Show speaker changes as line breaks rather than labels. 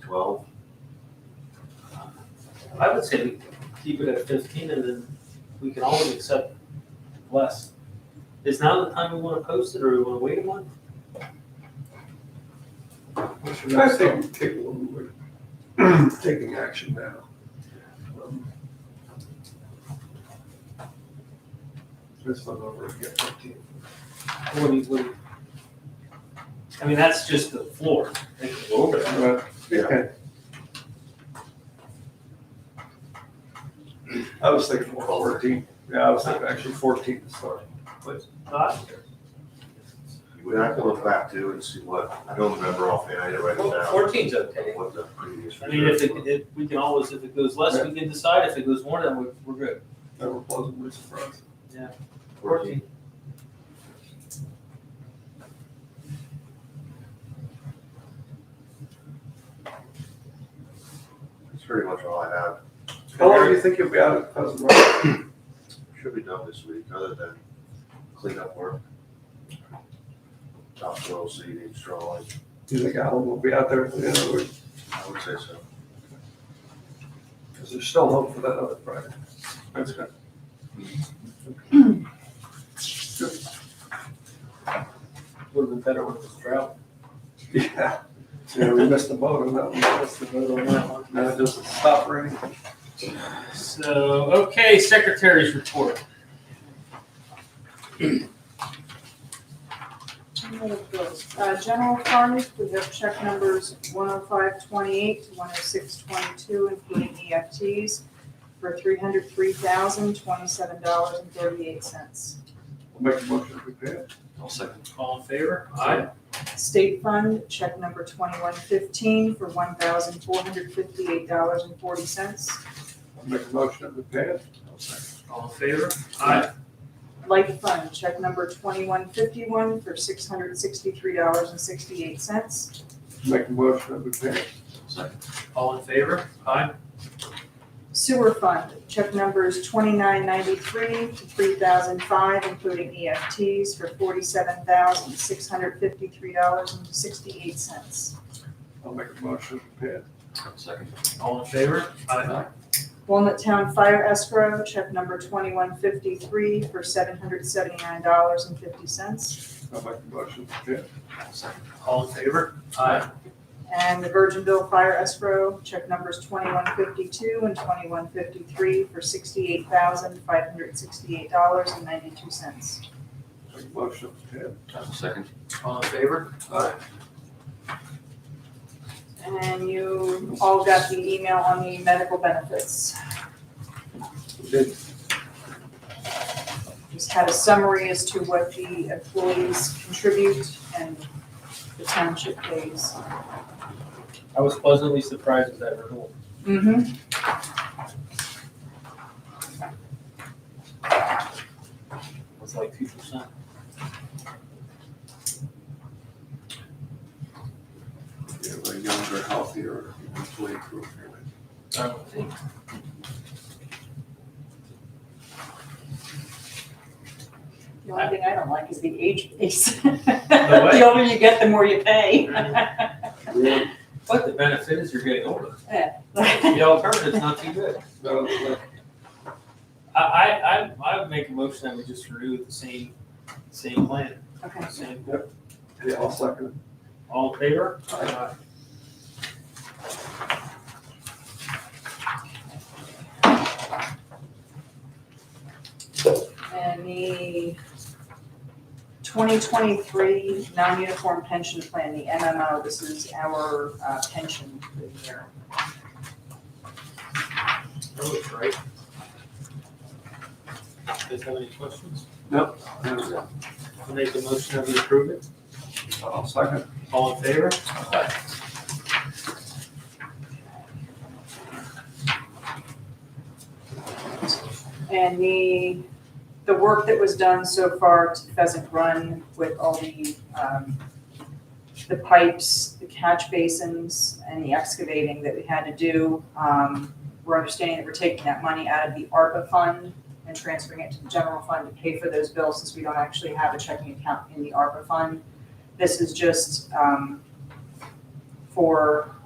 twelve.
I would say we keep it at fifteen and then we can always accept less. Is now the time we wanna post it or we wanna wait a month? What should we
I
do?
think take a little, bit- taking action now. Um, This one over again, fifteen.
What do you- what do you- I mean, that's just the floor. They can go over that.
Well, yeah. I was thinking more fourteen, yeah, I was thinking actually fourteen to start.
Not-
You would have to look back to and see what, I don't remember offhand, I didn't write it
Well,
down.
Fourteen's okay.
What the previous.
I mean, if it,
reserves
if, we can always, if it goes less, we can decide. If it goes more, then we're, we're good.
They were pleasantly surprised.
were.
Fourteen.
That's pretty much all I have.
How
Oh.
long do you think you'll be out at Pleasant Grove?
Should be done this week, other than cleanup work. Topsoil seeding, strolling,
Do you think Alan will be out there at the end of the week?
I would say so.
Because there's still hope for that other project.
That's good.
Would've been better when it was drought.
Yeah. Yeah, we missed the boat on that one.
That's the vote on that one.
Now it doesn't stop raining.
So, okay, secretary's report.
Uh, general fund, we have check numbers one oh five twenty-eight to one oh six twenty-two, including EFTs, for three hundred three thousand twenty-seven dollars and thirty-eight cents.
Make a motion to pay it.
All second. All in favor? Aye.
State fund, check number twenty-one fifteen for one thousand four hundred fifty-eight dollars and forty cents.
Make a motion to pay it.
All in favor? Aye.
Light fund, check number twenty-one fifty-one for six hundred sixty-three dollars and sixty-eight cents.
Make a motion to pay it.
All in favor? Aye.
Sewer fund, check numbers twenty-nine ninety-three to three thousand five, including EFTs, for forty-seven thousand six hundred fifty-three dollars and sixty-eight cents.
I'll make a motion to pay it.
All in favor? Aye.
Walnut Town Fire Escrow, check number twenty-one fifty-three for seven hundred seventy-nine dollars and fifty cents.
I'll make a motion to pay it.
All in favor? Aye.
And the Virginville Fire Escrow, check numbers twenty-one fifty-two and twenty-one fifty-three for sixty-eight thousand five hundred sixty-eight dollars and ninety-two cents.
Make a motion to pay it.
All in favor? Aye.
And you all got the email on the medical benefits.
We did
Just had a summary as to what the employees contribute and the township pays.
I was pleasantly surprised at that renewal.
Mm-hmm.
It's like two percent.
Yeah, we're younger, healthier, employee group.
I don't think.
The only thing I don't like is the age piece.
what?
The older you get, the more you pay.
Really?
But the benefit is you're getting older.
I'll
The alternative's not too good.
No, no.
I, I, I, I would make a motion that we just renew with the same, same plan, same,
Yeah, I'll second
all in favor?
Aye.
And the twenty twenty-three non-uniform pension plan, the MMO, this is our uh, pension for the year.
That looks right. Guys have any questions?
it.
I'll make a motion that we approve it,
I'll second.
all in favor?
And the, the work that was done so far to Pheasant Run with all the, um, the pipes, the catch basins, and the excavating that we had to do, um, we're understanding that we're taking that money out of the ARPA fund and transferring it to the general fund to pay for those bills since we don't actually have a checking account in the ARPA fund. This is just, um, for